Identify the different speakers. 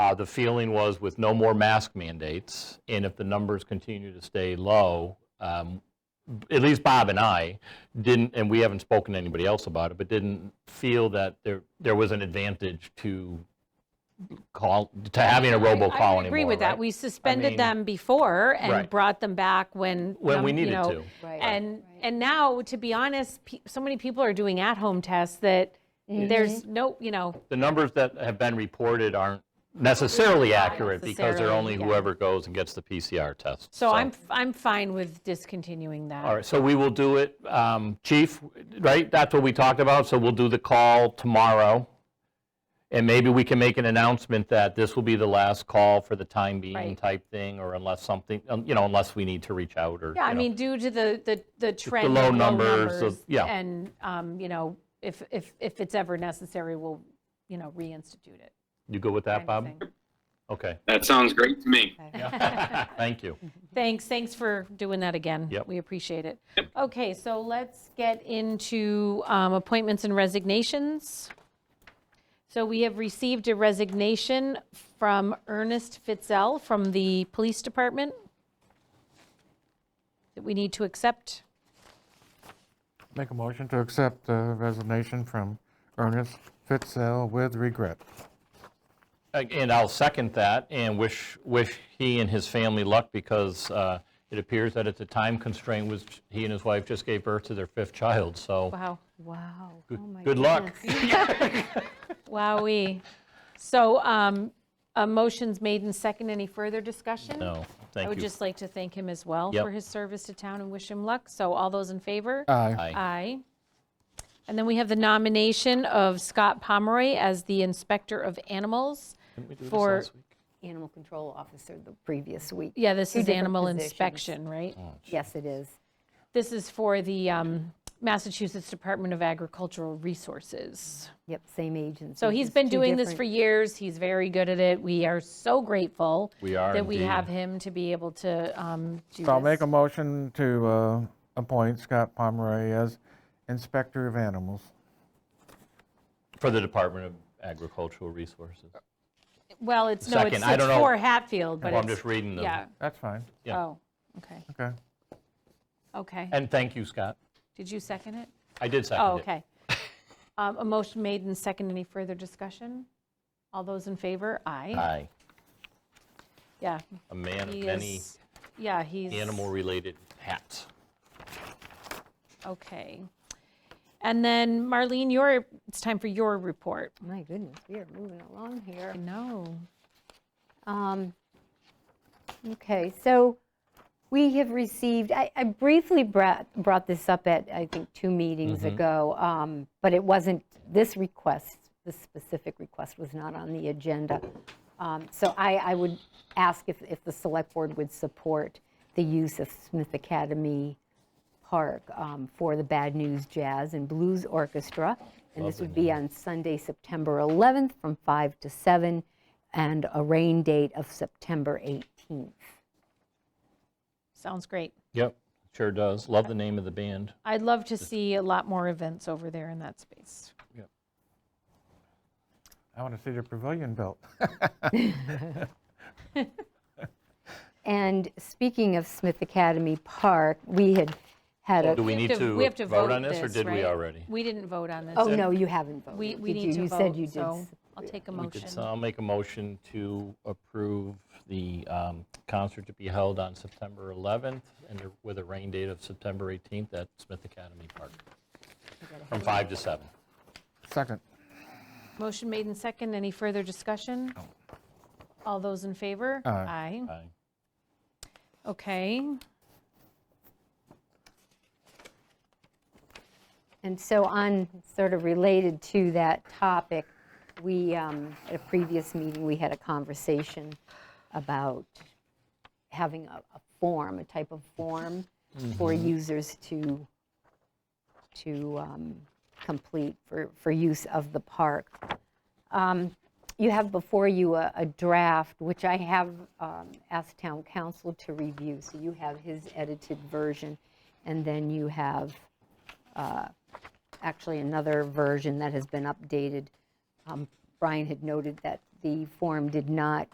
Speaker 1: Uh, The feeling was with no more mask mandates, and if the numbers continue to stay low, um, at least Bob and I didn't, and we haven't spoken to anybody else about it, but didn't feel that there, there was an advantage to call, to having a robocall anymore,
Speaker 2: I would agree with
Speaker 1: right?
Speaker 2: that. We suspended
Speaker 1: mean-
Speaker 2: them before and
Speaker 1: Right.
Speaker 2: brought them back when.
Speaker 1: When we
Speaker 2: um, you
Speaker 1: needed
Speaker 2: know,
Speaker 1: to.
Speaker 3: Right.
Speaker 2: And, and now, to be honest, pe- so many people are doing at-home tests that
Speaker 1: Mm-hmm.
Speaker 2: there's no, you know,
Speaker 1: the numbers that have been reported aren't necessarily accurate because they're
Speaker 2: necessarily,
Speaker 1: only
Speaker 2: yeah.
Speaker 1: whoever goes and gets the PCR test.
Speaker 2: so I'm, I'm fine with discontinuing that.
Speaker 1: All right, so we will do it, um, Chief, right? That's what we talked about, so we'll do the call tomorrow. And maybe we can make an announcement that this will be the last call for the time being
Speaker 2: Right.
Speaker 1: type thing, or unless something, um, you know, unless we need to reach out or,
Speaker 2: Yeah, I
Speaker 1: you know.
Speaker 2: mean, due to the, the, the trend. of
Speaker 1: low numbers, the-
Speaker 2: numbers,
Speaker 1: yeah.
Speaker 2: And, um, you know, if, if, if it's ever necessary, we'll, you know, reinstitute it.
Speaker 1: You good with that,
Speaker 2: kind
Speaker 1: Bob?
Speaker 2: of thing.
Speaker 1: Okay,
Speaker 4: That sounds great to me.
Speaker 1: thank you.
Speaker 2: Thanks, thanks for doing that again.
Speaker 1: Yep.
Speaker 2: We appreciate it. Okay, so let's get into um, appointments and resignations. So we have received a resignation from Ernest Fitzell from the Police Department that we need to accept.
Speaker 5: Make a motion to accept the resignation from Ernest Fitzell with regret.
Speaker 1: And I'll second that and wish, wish he and his family luck because uh, it appears that it's a time constraint was, he and his wife just gave birth to their fifth child, so
Speaker 2: Wow, Oh
Speaker 3: Wow.
Speaker 1: good luck.
Speaker 2: wowee. So um, a motion's made and second. Any further discussion?
Speaker 1: No,
Speaker 2: I
Speaker 1: thank
Speaker 2: would
Speaker 1: you.
Speaker 2: just like to thank him as well
Speaker 1: Yep.
Speaker 2: for his service to town and wish him luck. So all those in favor?
Speaker 5: Aye.
Speaker 1: Aye.
Speaker 2: Aye. And then we have the nomination of Scott Pomeroy as the Inspector of Animals for,
Speaker 3: Animal control officer the previous week.
Speaker 2: yeah, this
Speaker 3: Two
Speaker 2: is
Speaker 3: different
Speaker 2: animal
Speaker 3: positions.
Speaker 2: inspection, right?
Speaker 5: Oh.
Speaker 3: Yes, it is.
Speaker 2: This is for the um, Massachusetts Department of Agricultural Resources.
Speaker 3: Yep, same agency.
Speaker 2: So he's
Speaker 3: just
Speaker 2: been
Speaker 3: two
Speaker 2: doing this for
Speaker 3: different-
Speaker 2: years. He's very good at it. We are so grateful.
Speaker 1: We are
Speaker 2: That we
Speaker 1: indeed.
Speaker 2: have him to be able to um, do this.
Speaker 5: So I'll make a motion to uh, appoint Scott Pomeroy as Inspector of Animals.
Speaker 1: For the Department of Agricultural Resources.
Speaker 2: Well, it's, no, it's
Speaker 1: Second, I
Speaker 2: it's
Speaker 1: don't know.
Speaker 2: for Hatfield, but
Speaker 1: Well, I'm
Speaker 2: it's-
Speaker 1: just reading them.
Speaker 2: Yeah,
Speaker 5: That's fine,
Speaker 1: Yeah.
Speaker 2: oh, okay,
Speaker 5: okay.
Speaker 2: okay.
Speaker 1: And thank you, Scott.
Speaker 2: Did you second it?
Speaker 1: I did second it.
Speaker 2: Oh, okay. Um, A motion made and second. Any further discussion? All those in favor? Aye.
Speaker 1: Aye.
Speaker 2: Yeah.
Speaker 1: A man of
Speaker 2: he
Speaker 1: many
Speaker 2: is- Yeah, he's.
Speaker 1: animal-related hats.
Speaker 2: Okay. And then Marlene, your, it's time for your report.
Speaker 3: My goodness, we are moving along here.
Speaker 2: No.
Speaker 3: Um, Okay, so we have received, I I briefly brought, brought this up at, I think, two meetings ago, um, but it wasn't, this request, this specific request was not on the agenda. Um, So I, I would ask if, if the select board would support the use of Smith Academy Park um, for the Bad News Jazz and Blues Orchestra. And this would be on Sunday, September 11th from 5 to 7, and a rain date of September 18th.
Speaker 2: Sounds great.
Speaker 1: Yep, sure does. Love the name of the band.
Speaker 2: I'd love to see a lot more events over there in that space.
Speaker 5: I want to see the pavilion built.
Speaker 3: And speaking of Smith Academy Park, we had had
Speaker 1: Do
Speaker 3: a,
Speaker 1: we need
Speaker 2: we have
Speaker 1: to
Speaker 2: to
Speaker 1: vote
Speaker 2: vote
Speaker 1: on this, or
Speaker 2: this,
Speaker 1: did we
Speaker 2: right?
Speaker 1: already?
Speaker 2: We didn't vote on this.
Speaker 3: oh, no, you haven't voted.
Speaker 2: We, we
Speaker 3: did
Speaker 2: need
Speaker 3: you?
Speaker 2: to
Speaker 3: You said you
Speaker 2: vote, so
Speaker 3: did.
Speaker 2: I'll take a
Speaker 1: We did,
Speaker 2: motion.
Speaker 1: so I'll make a motion to approve the um, concert to be held on September 11th and there- with a rain date of September 18th at Smith Academy Park from 5 to 7.
Speaker 5: Second.
Speaker 2: Motion made and second. Any further discussion? All those in favor? Aye.
Speaker 1: Aye.
Speaker 2: Okay.
Speaker 3: And so on, sort of related to that topic, we, um, at a previous meeting, we had a conversation about having a a form, a type of form for users to, to um, complete for, for use of the park. Um, You have before you a a draft, which I have um, asked town council to review, so you have his edited version, and then you have actually another version that has been updated um, Brian had noted that the form did not